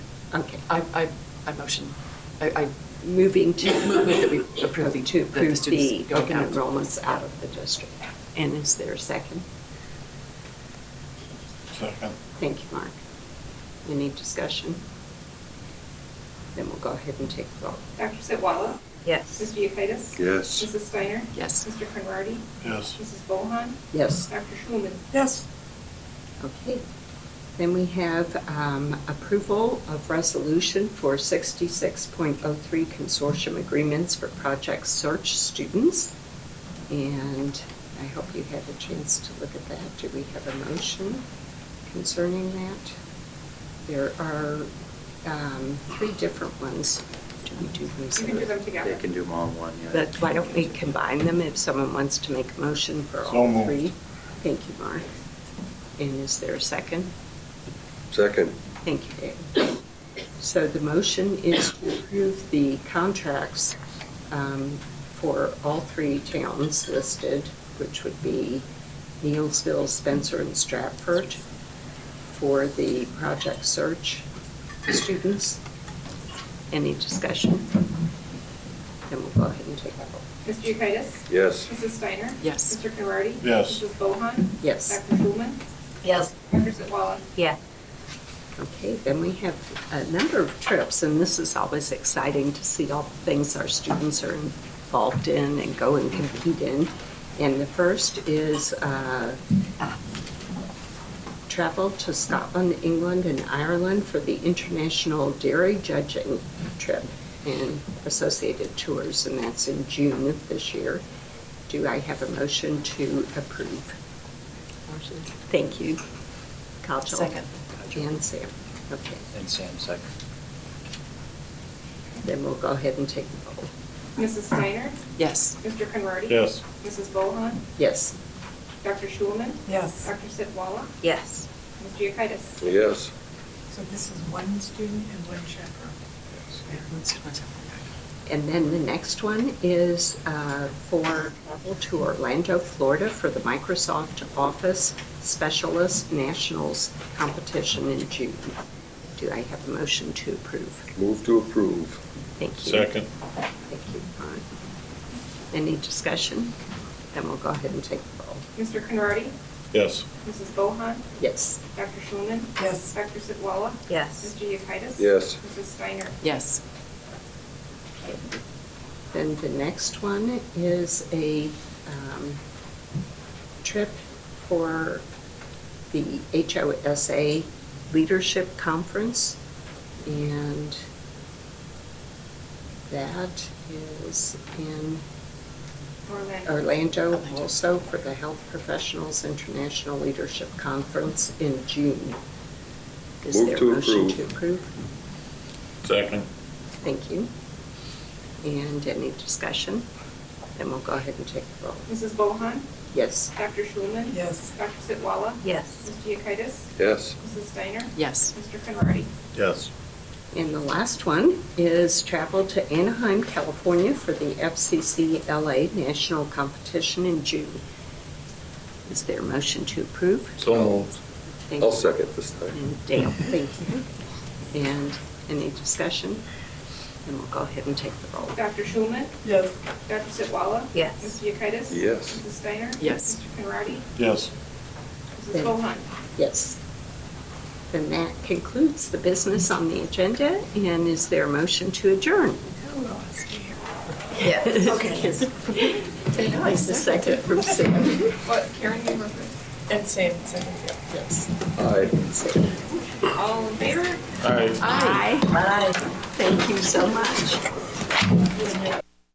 Okay. I, I, I motion, I, I, Moving to. Move that we approve the- To that the approve the students go open out. enrollments out of the district. And is there a second? Second. Thank you, Mark. Any discussion? Then we'll go ahead and take the vote. Dr. Sitwalla? Yes. Mr. Yekitis? Yes. Mrs. Steiner? yes. Mr. Conrady? Yes. Mrs. Bohan? Yes. Dr. Schulman? Yes. Okay. Then we have um, approval of resolution for 66.03 consortium agreements for Project Search students. And I hope you had a chance to look at that. Do we have a motion concerning that? There are um, three different ones. Do we do these? You can do them They together. can do them all in one, yeah. But why don't we combine them if someone wants to make a motion for So all moved. three? Thank you, Mark. And is there a second? Second. Thank you, David. So the motion is to approve the contracts um, for all three towns listed, which would be Nielsville, Spencer, and Stratford, for the Project Search students. Any discussion? Then we'll go ahead and take a vote. Mr. Yekitis? Yes. Mrs. Steiner? Yes. Mr. Conrady? Yes. Mrs. Bohan? Yes. Dr. Schulman? Yes. Dr. Sitwalla? Yeah. Okay, then we have a number of trips, and this is always exciting to see all the things our students are involved in and go and compete in. And the first is uh, travel to Scotland, England, and Ireland for the International Dairy Judging Trip and associated tours, and that's in June of this year. Do I have a motion to approve? Thank you. Kajal. Second. And Sam, okay. And Sam second. Then we'll go ahead and take the vote. Mrs. Steiner? Yes. Mr. Conrady? Yes. Mrs. Bohan? Yes, Dr. Schulman? Yes. Dr. Sitwalla? Yes. Mr. Yekitis? Yes. So this is one student and one chaperone. and then the next one is uh, for travel to Orlando, Florida for the Microsoft Office Specialist Nationals Competition in June. Do I have a motion to approve? Move to approve. Thank you. Second. Thank you, Ron. Any discussion? Then we'll go ahead and take the vote. Mr. Conrady? Yes. Mrs. Bohan? Yes, Dr. Schulman? Yes. Dr. Sitwalla? Yes. Mr. Yekitis? Yes. Mrs. Steiner? Yes. Then the next one is a um, trip for the HOSA Leadership Conference. And that is in Orlando? Orlando also for the Health Professionals International Leadership Conference in June. Is Move there a to motion approve. to approve? Second. Thank you. And any discussion? Then we'll go ahead and take the roll. Mrs. Bohan? Yes. Dr. Schulman? Yes. Dr. Sitwalla? Yes. Mr. Yekitis? Yes. Mrs. Steiner? Yes. Mr. Conrady? Yes. And the last one is travel to Anaheim, California for the FCC LA National Competition in June. Is there a motion to approve? So moved. Thank I'll you. second this time. And Dale, thank you. And any discussion? And we'll go ahead and take the roll. Dr. Schulman? Yes. Dr. Sitwalla? Yes. Mr. Yekitis? Yes. Mrs. Steiner? Yes. Mr. Conrady? Yes. Mrs. Bohan? Yes. Then that concludes the business on the agenda, and is there a motion to adjourn? Who else do you have? Yes. Yes. Nice, a second from Sam. What, Karen, you were first. And Sam second. Yes. Aye. Sam. All in favor? Aye. Aye. Thank you so much.